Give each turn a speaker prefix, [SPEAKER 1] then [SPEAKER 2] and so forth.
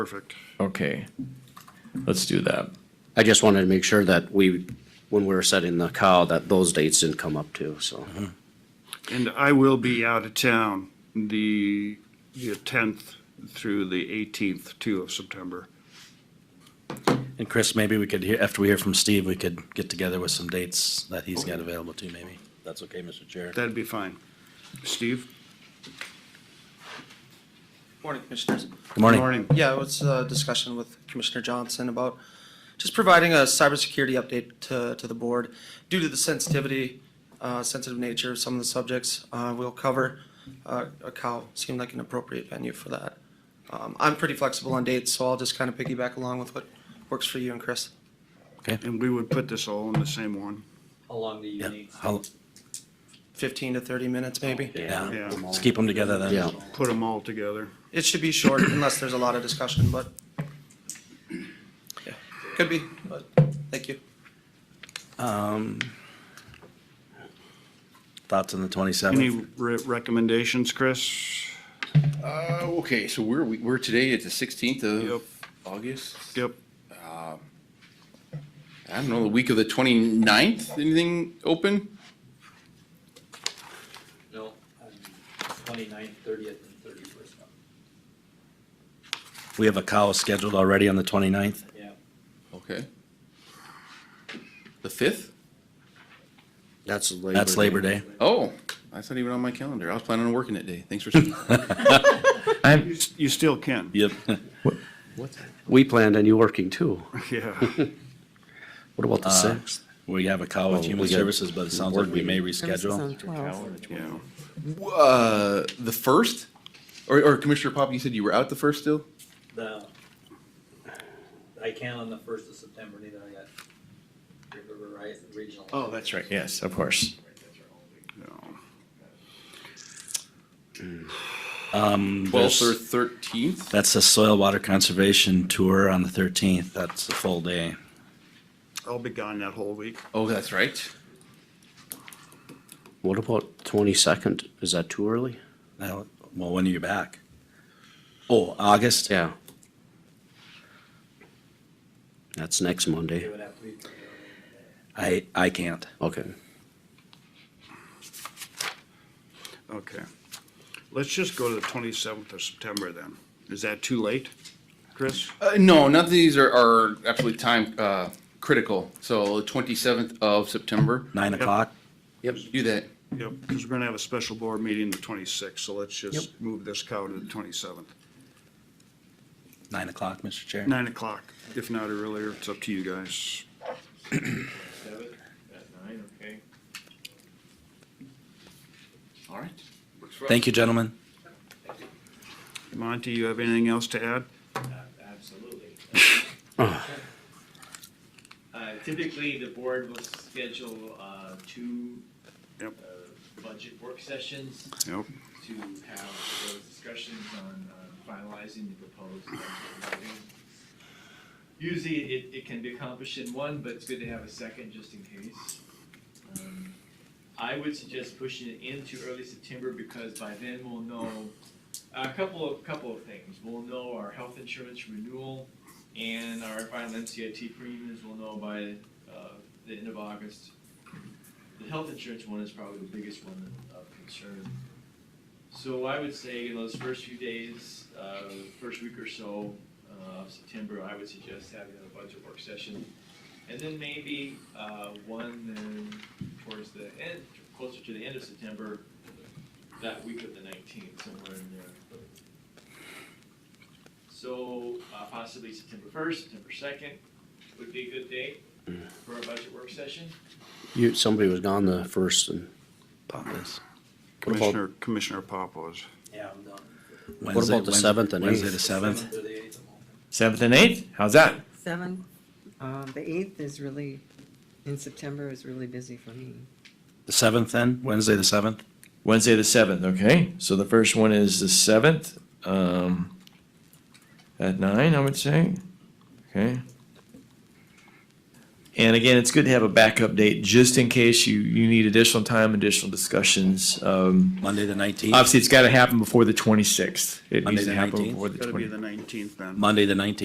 [SPEAKER 1] Perfect.
[SPEAKER 2] Okay, let's do that.
[SPEAKER 3] I just wanted to make sure that we, when we were setting the cow, that those dates didn't come up too, so.
[SPEAKER 1] And I will be out of town the, the tenth through the eighteenth, too, of September.
[SPEAKER 4] And Chris, maybe we could hear, after we hear from Steve, we could get together with some dates that he's got available too, maybe. That's okay, Mr. Chair.
[SPEAKER 1] That'd be fine. Steve?
[SPEAKER 5] Morning, Commissioners.
[SPEAKER 4] Good morning.
[SPEAKER 1] Morning.
[SPEAKER 5] Yeah, it was a discussion with Commissioner Johnson about just providing a cybersecurity update to, to the board. Due to the sensitivity, uh, sensitive nature of some of the subjects, uh, we'll cover, uh, a cow seemed like an appropriate venue for that. Um, I'm pretty flexible on dates, so I'll just kind of piggyback along with what works for you and Chris.
[SPEAKER 1] And we would put this all in the same one.
[SPEAKER 6] How long do you
[SPEAKER 4] Yeah,
[SPEAKER 6] need?
[SPEAKER 4] I'll-
[SPEAKER 5] Fifteen to thirty minutes, maybe.
[SPEAKER 4] yeah,
[SPEAKER 1] Yeah.
[SPEAKER 4] let's keep them together then.
[SPEAKER 3] Yeah,
[SPEAKER 1] Put them all together.
[SPEAKER 5] It should be short unless there's a lot of discussion, but could be, but thank you.
[SPEAKER 4] Um, Thoughts on the
[SPEAKER 1] Any
[SPEAKER 4] twenty-seventh?
[SPEAKER 1] re- recommendations, Chris?
[SPEAKER 7] Uh, okay, so we're, we- we're today at the sixteenth
[SPEAKER 1] Yep.
[SPEAKER 7] of August.
[SPEAKER 1] Yep.
[SPEAKER 7] I don't know, the week of the 29th. anything open?
[SPEAKER 6] No, Um, twenty-ninth, thirtieth, and thirty-first.
[SPEAKER 4] We have a cow scheduled already on the twenty-ninth.
[SPEAKER 6] Yeah.
[SPEAKER 7] Okay. The fifth?
[SPEAKER 3] that's Labor.
[SPEAKER 4] That's Labor Day.
[SPEAKER 7] Oh, that's not even on my calendar. I was planning on working that day. Thanks for.
[SPEAKER 2] I'm,
[SPEAKER 1] You still can.
[SPEAKER 4] Yep.
[SPEAKER 3] We planned on you working too.
[SPEAKER 1] Yeah.
[SPEAKER 3] What about the sixth?
[SPEAKER 4] We have a cow with
[SPEAKER 3] Oh,
[SPEAKER 4] Human
[SPEAKER 3] we got-
[SPEAKER 4] Services, but it sounds like we may reschedule.
[SPEAKER 1] Yeah.
[SPEAKER 7] Uh, the first? Or, or Commissioner Pop, you said you were out the first still?
[SPEAKER 6] The, I can on the first of September, neither I got River Horizon Regional.
[SPEAKER 4] Oh.
[SPEAKER 2] that's right. Yes, of course.
[SPEAKER 1] No.
[SPEAKER 4] Um,
[SPEAKER 7] Twelfth or
[SPEAKER 4] there's-
[SPEAKER 7] thirteenth?
[SPEAKER 4] that's the soil water conservation tour on the thirteenth. That's a full day.
[SPEAKER 1] I'll be gone that whole week.
[SPEAKER 7] Oh, that's right.
[SPEAKER 3] What about twenty-second? Is that too early?
[SPEAKER 4] Now, Well, when are you back? Oh, August?
[SPEAKER 3] Yeah. That's next
[SPEAKER 6] It
[SPEAKER 3] Monday.
[SPEAKER 6] would have to be.
[SPEAKER 4] I, I can't.
[SPEAKER 3] Okay.
[SPEAKER 1] Okay. Let's just go to the twenty-seventh of September then. Is that too late, Chris?
[SPEAKER 7] Uh, no, none of these are, are absolutely time, uh, critical. So the twenty-seventh of September.
[SPEAKER 4] Nine o'clock?
[SPEAKER 7] Yep. Do that.
[SPEAKER 1] Yep, because we're gonna have a special board meeting the twenty-sixth, so let's just move this cow to the twenty-seventh.
[SPEAKER 4] Nine o'clock, Mr. Chair.
[SPEAKER 1] Nine o'clock, if not earlier, it's up to you guys.
[SPEAKER 8] Seven at nine, okay.
[SPEAKER 7] All right.
[SPEAKER 4] Thank you, gentlemen.
[SPEAKER 1] Monty, you have anything else to add?
[SPEAKER 8] Absolutely. Uh, Typically, the board will schedule uh, two
[SPEAKER 1] Yep.
[SPEAKER 8] uh, budget work sessions
[SPEAKER 1] Nope.
[SPEAKER 8] to have those discussions on uh, finalizing the proposed budget. wording. Usually, it, it can be accomplished in one, but it's good to have a second just in case. Um, I would suggest pushing it into early September because by then we'll know a couple of, couple of things. We'll know our health insurance renewal and our final NCIT premiums we'll know by uh, the end of August. The health insurance one is probably the biggest one of concern. So I would say in those first few days, uh, first week or so uh, of September, I would suggest having a budget work session. And then maybe uh, one then towards the end, closer to the end of September, that week of the nineteenth, somewhere in there. So uh, possibly September first, September second would be a good date for a budget work session.
[SPEAKER 3] You, somebody was gone the first and. What about-
[SPEAKER 1] Commissioner, Commissioner Pop was.
[SPEAKER 6] Yeah, I'm done.
[SPEAKER 3] What about the seventh and
[SPEAKER 4] Wednesday
[SPEAKER 3] eighth?
[SPEAKER 4] the seventh?
[SPEAKER 6] Or the eighth, I'm open.
[SPEAKER 2] Seventh and eighth, how's that?
[SPEAKER 9] Seven, um, the eighth is really, in September is really busy for me.
[SPEAKER 4] The seventh then, Wednesday the seventh?
[SPEAKER 2] Wednesday the seventh, okay? So the first one is the seventh, um, at nine, I would say, okay?
[SPEAKER 8] And again, it's good to have a backup date just in case you, you need additional time, additional discussions. Um,
[SPEAKER 4] Monday, the nineteenth,
[SPEAKER 8] obviously, it's got to happen before the twenty-sixth. It
[SPEAKER 4] Monday
[SPEAKER 8] needs to
[SPEAKER 4] the
[SPEAKER 8] happen
[SPEAKER 4] 19th?
[SPEAKER 8] before the
[SPEAKER 1] Gotta
[SPEAKER 8] twenty.
[SPEAKER 1] be the nineteenth then.
[SPEAKER 4] Monday, the nineteenth.